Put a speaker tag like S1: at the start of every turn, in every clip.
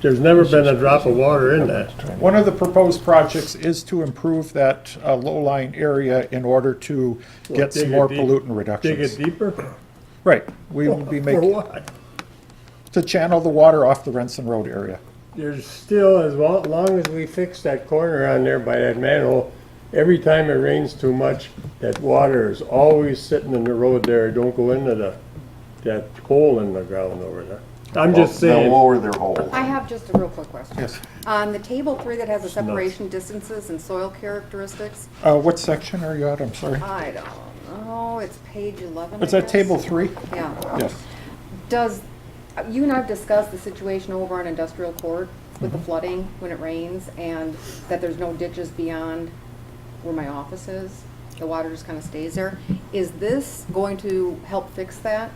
S1: There's never been a drop of water in that.
S2: One of the proposed projects is to improve that uh, low-lying area in order to get
S1: Dig
S2: some
S1: it
S2: more
S1: deep-
S2: pollutant
S1: Dig it
S2: reductions.
S1: deeper?
S2: Right, we will be
S1: For
S2: making,
S1: what?
S2: to channel the water off the Renson Road area.
S1: There's still, as lo- long as we fix that corner on there by that manhole, every time it rains too much, that water is always sitting in the road there. It Don't go into the, that hole in the ground over there. I'm just
S3: They'll
S1: saying,
S3: lower their hole.
S4: I have just a real quick question.
S2: Yes.
S4: On the table three that has the separation distances and soil characteristics,
S2: Uh, What section are you at, I'm sorry?
S4: I don't know, it's page 11, I
S2: It's at
S4: guess?
S2: table three?
S4: Yeah.
S2: Yes.
S4: Does, you and I have discussed the situation over on Industrial Court with the flooding when it rains and that there's no ditches beyond where my office is. The water just kind of stays there. Is this going to help fix that?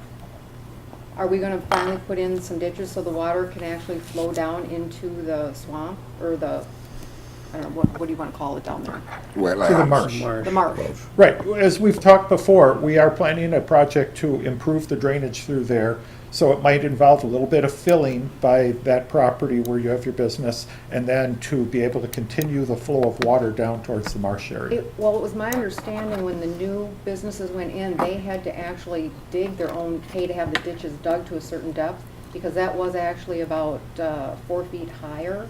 S4: Are we gonna finally put in some ditches so the water can actually flow down into the swamp or the, I don't know, what, what do you wanna call it down there?
S2: To the marsh.
S4: The marsh?
S2: Right, as we've talked before, we are planning a project to improve the drainage through there. So it might involve a little bit of filling by that property where you have your business and then to be able to continue the flow of water down towards the marsh area.
S4: It, well, it was my understanding when the new businesses went in, they had to actually dig their own, pay to have the ditches dug to a certain depth, because that was actually about, uh, four feet higher.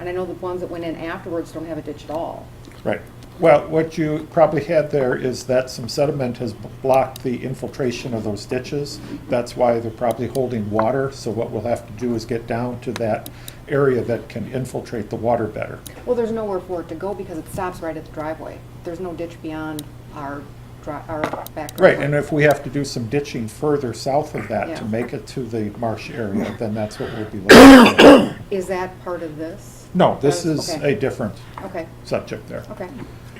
S4: And I know the ones that went in afterwards don't have a ditch at all.
S2: Right. Well, what you probably had there is that some sediment has b- blocked the infiltration of those ditches. That's why they're probably holding water. So what we'll have to do is get down to that area that can infiltrate the water better.
S4: Well, there's nowhere for it to go because it stops right at the driveway. There's no ditch beyond our dri, our back driveway.
S2: Right, and if we have to do some ditching further south of that to
S4: Yeah.
S2: make it to the marsh area, then that's what we'll be looking for.
S4: Is that part of this?
S2: No, this is
S4: Okay.
S2: a different
S4: Okay,
S2: subject there.
S4: okay.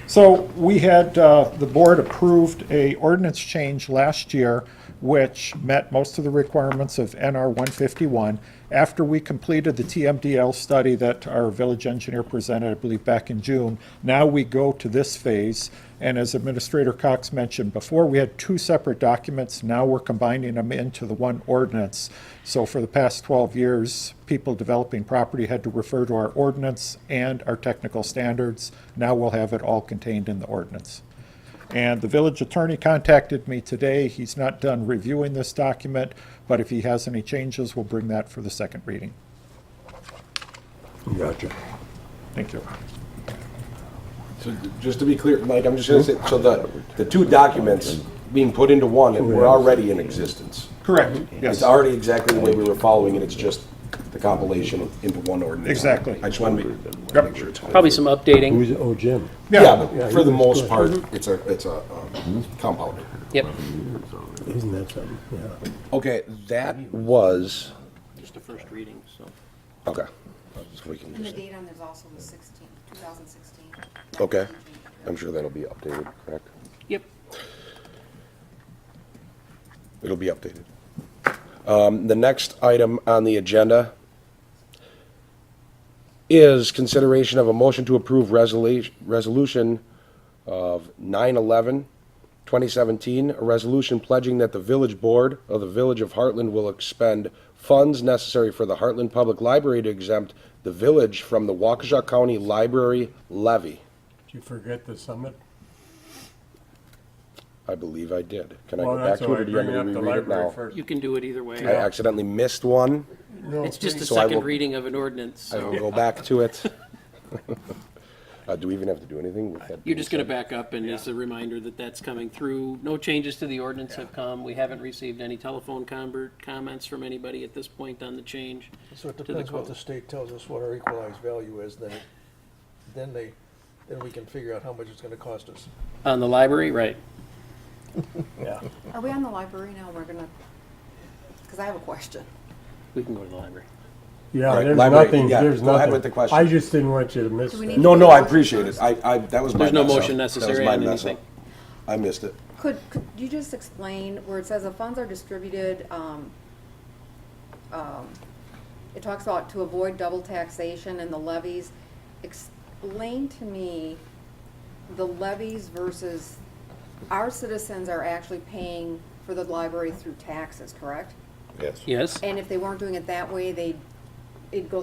S2: So we had, uh, the board approved a ordinance change last year, which met most of the requirements of NR 151. After we completed the TMDL study that our village engineer presented, I believe, back in June, now we go to this phase. And as Administrator Cox mentioned before, we had two separate documents. Now we're combining them into the one ordinance. So for the past 12 years, people developing property had to refer to our ordinance and our technical standards. Now we'll have it all contained in the ordinance. And the village attorney contacted me today. He's not done reviewing this document, but if he has any changes, we'll bring that for the second reading.
S5: Gotcha.
S2: Thank you.
S6: So th- just to be clear, Mike, I'm just gonna say, so the, the two documents being put into one and were already in existence.
S2: Correct. Yes,
S6: It's already exactly the way we were following it, it's just the compilation into one ordinance.
S2: Exactly.
S6: I just want to
S2: Yep.
S6: make, make sure it's. clear.
S7: Probably some updating.
S5: Who's, oh, Jim.
S6: Yeah, but for the most part, it's a, it's a um, compounder.
S7: Yep.
S5: Isn't that something? Yeah.
S6: Okay, that was,
S7: Just the first reading, so.
S6: okay. So we can just-
S4: on there's also the 16, 2016.
S6: Okay, I'm sure that'll be updated, correct?
S7: Yep.
S6: It'll be updated. Um, The next item on the agenda is consideration of a motion to approve resolu- resolution of 9/11/2017, a resolution pledging that the village board of the Village of Heartland will expend funds necessary for the Heartland Public Library to exempt the village from the Waukesha County Library levy.
S1: did you forget the summit?
S6: I believe I did. Can I
S1: Well,
S6: go back
S1: that's
S6: to
S1: why
S6: it
S1: I
S6: or do you
S1: bring
S6: want me to
S1: up the
S6: reread it
S1: library
S6: now?
S1: first.
S7: You can do it either
S6: I
S7: way.
S6: accidentally missed one.
S7: It's just the
S6: So I will-
S7: second reading of an ordinance.
S6: I will go back to it. Uh, do we even have to do anything with that?
S7: You're
S6: being
S7: just going to
S6: said?
S7: back up and as a reminder that that's coming through. No changes to the ordinance have come. We haven't received any telephone convert, comments from anybody at this point on the change.
S8: So it
S7: to the
S8: depends what
S7: code.
S8: the state tells us what our equalized value is, then, then they, then we can figure out how much it's gonna cost us.
S7: On the library, right.
S4: Are we on the library now? We're gonna, because I have a question.
S7: We can go to the library.
S1: Yeah,
S6: Right,
S1: there's
S6: library,
S1: nothing,
S6: yeah,
S1: there's nothing.
S6: go ahead with the question.
S1: I just didn't want you to miss
S4: Do we
S1: that.
S4: need-
S6: No, no, I appreciate it. I, I, that was my.
S7: There's no
S6: mess up.
S7: motion
S6: That was
S7: necessary
S6: my
S7: on
S6: mess up.
S7: anything.
S6: I missed it.
S4: Could, could you just explain where it says the funds are distributed, um, um, it talks about to avoid double taxation and the levies. Explain to me the levies versus, our citizens are actually paying for the library through taxes, correct?
S6: Yes.
S7: Yes?
S4: And if they weren't doing it that way, they, it'd go